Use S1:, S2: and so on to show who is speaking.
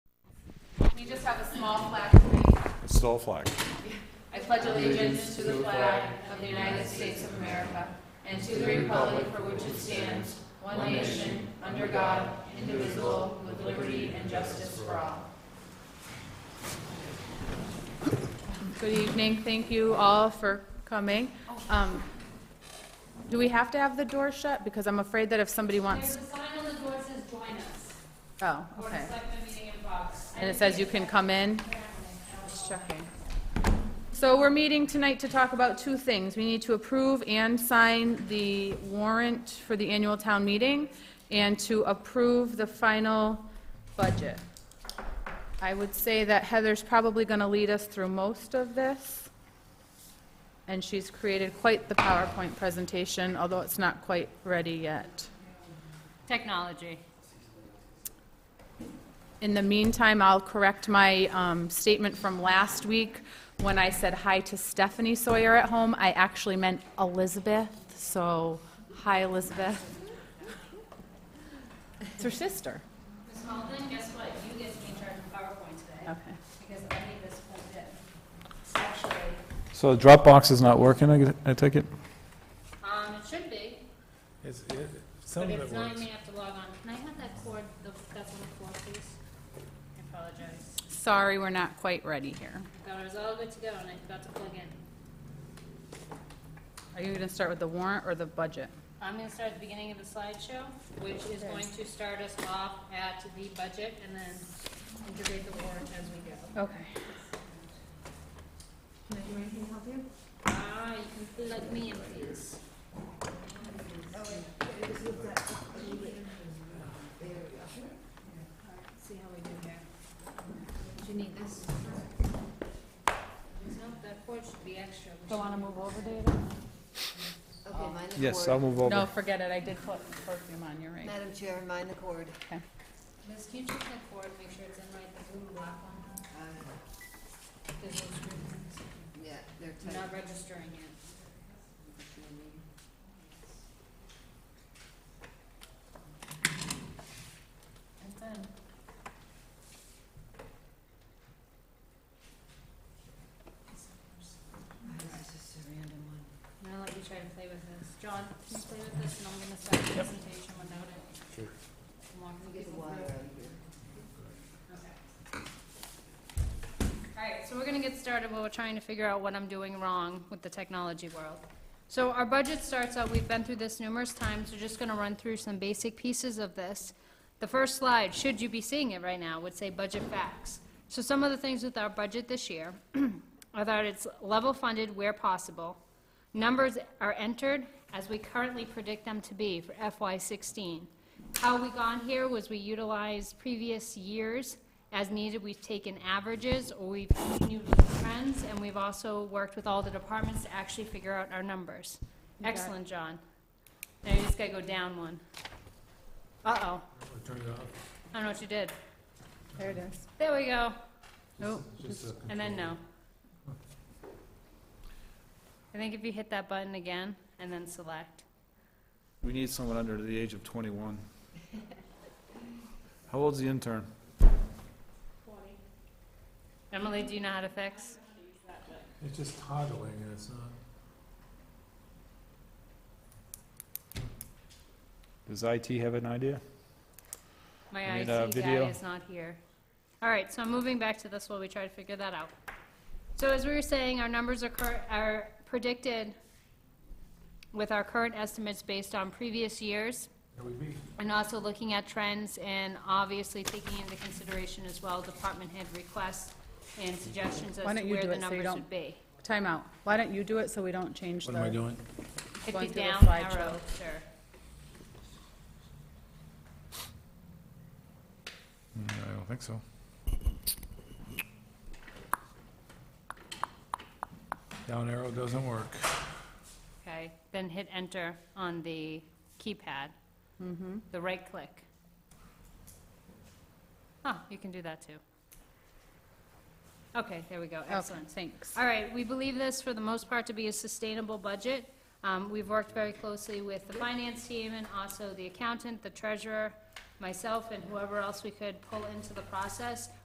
S1: You just have a small flag tonight.
S2: It's still a flag.
S1: I pledge allegiance to the flag of the United States of America and to the republic for which it stands, one nation, under God, indivisible, with liberty and justice for all. Good evening. Thank you all for coming. Um, Do we have to have the door shut? Because I'm afraid that if somebody
S3: There's
S1: wants,
S3: a sign on the door that says join us.
S1: oh,
S3: Board of
S1: okay.
S3: Selectmen meeting in Fox.
S1: And it says you can come in. Just checking. So we're meeting tonight to talk about two things. We need to approve and sign the warrant for the annual town meeting and to approve the final budget. I would say that Heather's probably going to lead us through most of this. And she's created quite the PowerPoint presentation, although it's not quite ready yet.
S3: Technology.
S1: In the meantime, I'll correct my um, statement from last week. When I said hi to Stephanie Sawyer at home, I actually meant Elizabeth, so hi, Elizabeth. It's her sister.
S3: Ms. Malden, guess what? You get to be in charge of PowerPoint today
S1: Okay.
S3: because I need this full bit. Actually,
S2: So Dropbox is not working, I get- I take it?
S3: um, it should be,
S4: It's, it, some
S3: but
S4: of
S3: if it's
S4: it
S3: not,
S4: works.
S3: you may have to log on. Can I have that cord, the- that one cord, please? I apologize.
S1: Sorry, we're not quite ready here.
S3: I thought I was all good to go and I forgot to plug in.
S1: Are you going to start with the warrant or the budget?
S3: I'm going to start at the beginning of the slideshow, which is going to start us off at the budget and then integrate the warrant as we go.
S1: Okay.
S3: Ah, you can plug me in, please. Oh, Alright, See how we do here. Do you need this? No, that cord should be extra. We
S1: Do you want to move over, David?
S5: Okay, mind the
S2: Yes, I'll
S5: cord.
S2: move
S1: No,
S2: over.
S1: forget it, I did put perfume on, you're right.
S5: Madam Chair, mind the cord.
S3: should- Liz, can you check that cord, make sure it's in right, the blue black one?
S5: Uh,
S3: 'Cause those screws
S5: Yeah, they're
S3: are
S5: tight.
S3: Not registering yet. And then.
S5: This is a random one.
S3: I'm gonna let you try to play with this. John, can you play with this, and I'm gonna start the presentation without it?
S4: Sure.
S3: I'm walking
S5: Let me get the
S3: people
S5: wire out
S3: through.
S5: of here.
S3: Okay. All right, so we're gonna get started while we're trying to figure out what I'm doing wrong with the technology world. So our budget starts out, we've been through this numerous times, we're just gonna run through some basic pieces of this. The first slide, should you be seeing it right now, would say budget facts. So some of the things with our budget this year are that it's level funded where possible. Numbers are entered as we currently predict them to be for FY sixteen. How we got here was we utilized previous years as needed. We've taken averages, or we've continued with trends, and we've also worked with all the departments to actually figure out our numbers.
S1: got it.
S3: Excellent, John. Now you just gotta go down one. Uh-oh,
S4: Turn it off.
S3: I don't know what you did.
S1: There it is.
S3: There we go.
S1: Nope.
S4: Just a
S3: And then
S4: control.
S3: no. I think if you hit that button again and then select.
S2: We need someone under the age of 21. How old's the intern?
S3: Emily, do you know how to fix?
S4: It's just toggling and it's not,
S2: Does IT have an idea?
S3: My
S2: We need a
S3: IT
S2: video.
S3: guy is not here. All right, so I'm moving back to this while we try to figure that out. So as we were saying, our numbers are cur, are predicted with our current estimates based on previous years.
S4: it would be,
S3: And also looking at trends and obviously taking into consideration as well department head requests and suggestions
S1: Why
S3: as
S1: don't
S3: to
S1: you
S3: where
S1: do
S3: the
S1: it so you
S3: numbers
S1: don't-
S3: should be.
S1: Time out. Why don't you do it so we don't change the...
S4: what am I doing?
S3: Hit
S1: Going
S3: the
S1: through the
S3: down
S1: slideshow.
S3: arrow, sir.
S4: Mm, I don't think so. Down arrow doesn't work.
S3: Okay, then hit enter on the keypad, the right click. Huh, you can do that too. Okay, there we go,
S1: Excellent,
S3: excellent.
S1: thanks.
S3: All right, we believe this for the most part to be a sustainable budget. Um, We've worked very closely with the finance team and also the accountant, the treasurer, myself, and whoever else we could pull into the process.